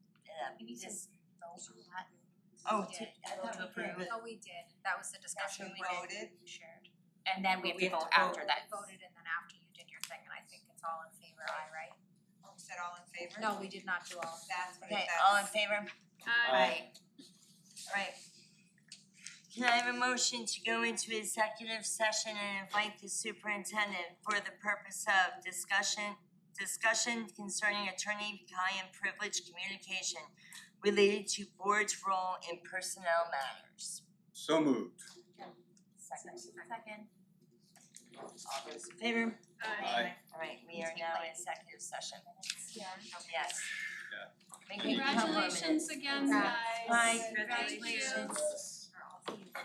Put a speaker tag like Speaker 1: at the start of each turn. Speaker 1: we need to vote on that.
Speaker 2: Oh,
Speaker 1: We
Speaker 2: to-
Speaker 1: did.
Speaker 2: I thought we approved it.
Speaker 1: Oh, we did, that was the discussion we
Speaker 2: we
Speaker 1: did,
Speaker 2: voted.
Speaker 1: we shared.
Speaker 3: And then we have
Speaker 2: We
Speaker 3: to
Speaker 2: have
Speaker 3: vote
Speaker 2: to vote.
Speaker 3: after that.
Speaker 1: We voted and then after you did your thing, and I think it's all in favor, I right?
Speaker 2: We said all in favor?
Speaker 1: No, we did not do all of that.
Speaker 2: That's what
Speaker 3: Okay,
Speaker 2: it says.
Speaker 3: all in favor?
Speaker 4: Aye.
Speaker 1: Right,
Speaker 3: Can I have a motion to go into executive session and invite the superintendent for the purpose of discussion, discussion concerning attorney-client privilege communication related to board's role in personnel matters.
Speaker 4: So moved.
Speaker 3: Second.
Speaker 1: second.
Speaker 3: All those in favor?
Speaker 4: Aye.
Speaker 3: All right, we are now in executive session.
Speaker 1: Yeah.
Speaker 3: Yes.
Speaker 4: Yeah.
Speaker 3: Make me come for a minute.
Speaker 4: Congratulations
Speaker 5: Congratulations again, guys.
Speaker 1: Congrats.
Speaker 3: Bye.
Speaker 5: Thank you.
Speaker 3: Congratulations.
Speaker 1: For all of you.